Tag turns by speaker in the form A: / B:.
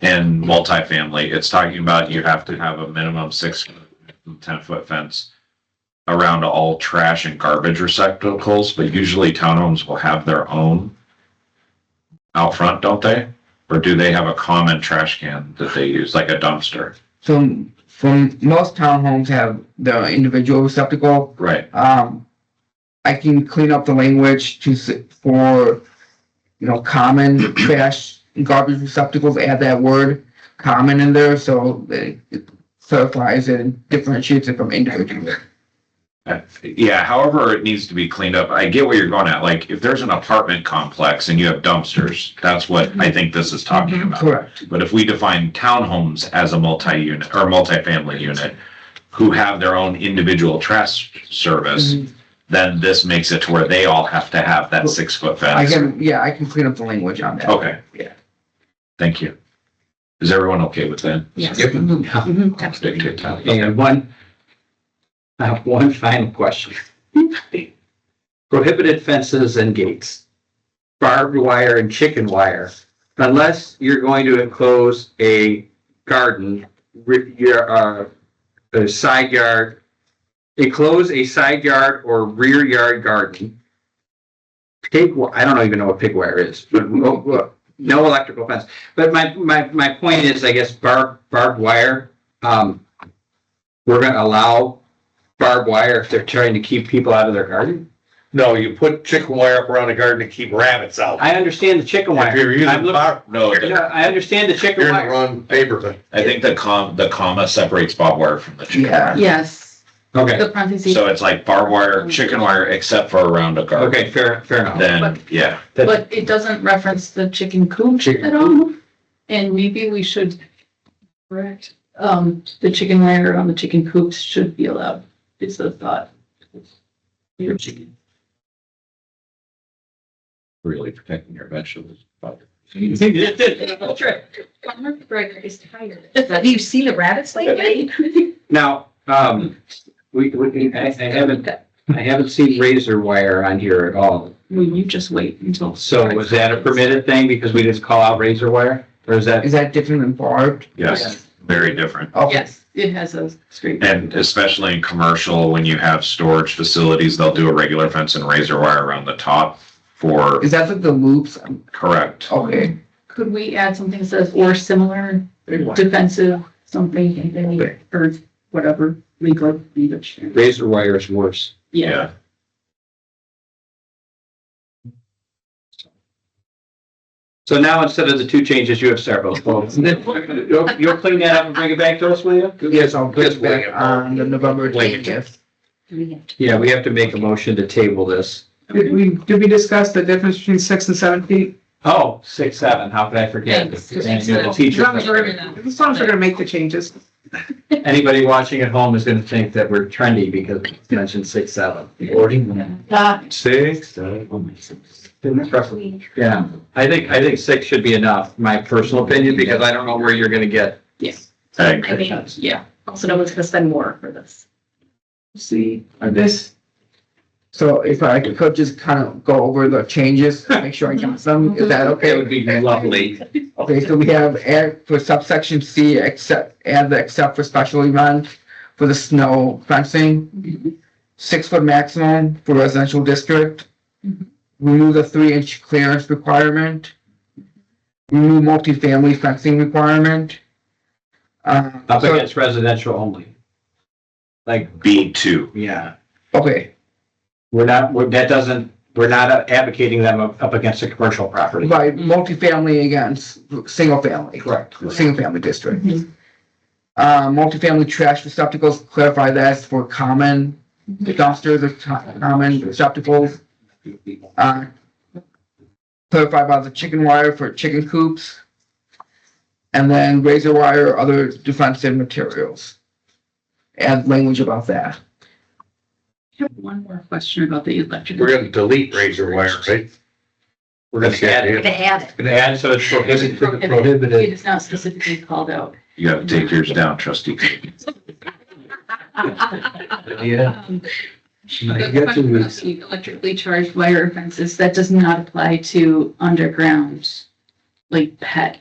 A: and multifamily, it's talking about you have to have a minimum six, ten foot fence around all trash and garbage receptacles, but usually townhomes will have their own out front, don't they? Or do they have a common trash can that they use, like a dumpster?
B: So from most townhomes have the individual receptacle.
A: Right,
B: Um, I can clean up the language to s- for you know common trash and garbage receptacles. Add that word common in there so that it clarifies and differentiates it from individual.
A: Uh, yeah, however, it needs to be cleaned up. I get where you're going at, like, if there's an apartment complex and you have dumpsters, that's what I think this is talking
B: Mm-hmm.
A: about.
B: Correct.
A: But if we define townhomes as a multi-unit or multifamily unit who have their own individual trash service,
B: Mhm.
A: then this makes it to where they all have to have that six foot
B: I
A: fence.
B: can yeah I can clean up the language on that.
A: Okay.
B: Yeah.
A: Thank you. Is everyone okay with that?
C: Yes.
D: Yep.
C: Mhm. Mhm.
A: Stick
C: Absolutely.
A: to town.
D: I have one, I have one final question. Prohibited fences and gates, barbed wire and chicken wire, unless you're going to enclose a garden, ri- your, uh, a side yard, enclose a side yard or rear yard garden. Pig, wi- I don't even know what pig wire is, but wo- wo- no electrical fence. But my, my, my point is, I guess, barbed, barbed wire, um, we're gonna allow barbed wire if they're trying to keep people out of their garden?
E: No, you put chicken wire up around the garden to keep rabbits out.
D: I understand the chicken
E: If
D: wire.
E: you're
D: I'm
E: using
D: looking-
E: bar,
A: No,
D: No,
A: the-
D: I understand the chicken
E: you're in the
D: wire.
E: wrong neighborhood.
A: I think the com, the comma separates barbed wire from the chicken
B: Yeah.
A: wire.
C: Yes,
D: Okay,
C: the parentheses,
A: So it's like barbed wire, chicken wire, except for around a garden.
D: okay, fair, fair enough.
A: Then, yeah,
D: That-
C: but it doesn't reference the chicken coop
D: Chicken
C: at all. And maybe we should, correct, um, the chicken wire on the chicken coops should be allowed, is the thought. Your chicken.
A: really protecting your vegetables.
F: Farmer Breaker is tired. Do you see the rabbits lately?
D: Now, um, we, we, I, I haven't, I haven't seen razor wire on here at all.
C: Will you just wait until?
D: So was that a permitted thing because we didn't call out razor wire? Or is that?
B: Is that different than barbed?
A: Yes, very different.
B: Okay.
C: Yes, it has a straight.
A: And especially in commercial, when you have storage facilities, they'll do a regular fence and razor wire around the top for,
B: Is that like the loops?
A: correct.
B: Okay.
C: Could we add something that says or similar defensive, something, and then, or whatever, legal language?
D: Razor wire is worse.
C: Yeah,
D: So now instead of the two changes, you have several. You'll, you'll clean that up and bring it back to us, will you?
B: Yes, I'll put
E: Just
B: it
E: wing
B: back
E: it.
B: on the November
E: Wing it.
B: twentieth.
D: Yeah, we have to make a motion to table this.
G: Did we, did we discuss the difference between six and seven feet?
D: Oh, six, seven, how could I forget?
F: Thanks.
D: And you're the teacher.
G: As long as we're gonna make the changes.
D: Anybody watching at home is gonna think that we're trendy because we mentioned six, seven.
C: that,
D: Six, seven. Yeah, I think, I think six should be enough, my personal opinion, because I don't know where you're gonna get.
C: yes,
A: Ag.
F: I mean, yeah, also no one's gonna spend more for this.
B: See, or this. So if I could just kind of go over the changes, make sure I got them, is that
D: It would
B: okay?
D: be lovely.
B: Okay, so we have add for subsection C, except, add the except for special event for the snow fencing. Six foot maximum for residential district.
G: Mm-hmm.
C: Mhm.
B: Remove the three inch clearance requirement.
G: Mm-hmm.
B: Remove multifamily fencing requirement. Uh,
D: Up
B: so-
D: against residential only. Like,
A: B two.
D: yeah,
B: okay,
D: we're not, we're- that doesn't, we're not advocating them up up against a commercial property.
B: by multifamily against single family.
D: Correct.
B: single family district. Uh, multifamily trash receptacles, clarify that for common dumpsters or co- common receptacles. Uh, clarify about the chicken wire for chicken coops. And then razor wire, or other defensive materials. Add language about that.
C: I have one more question about the electric.
E: We're gonna delete razor wire, right?
D: We're gonna add,
F: They had it.
D: gonna add, so it's prohibited.
C: It
D: prohibited.
C: is not specifically called out.
A: You gotta take yours down, trustee. Coogan.
D: Yeah.
C: Um,
D: I
C: The
D: get
C: question
D: you.
C: about the electrically charged wire fences, that does not apply to underground, like pet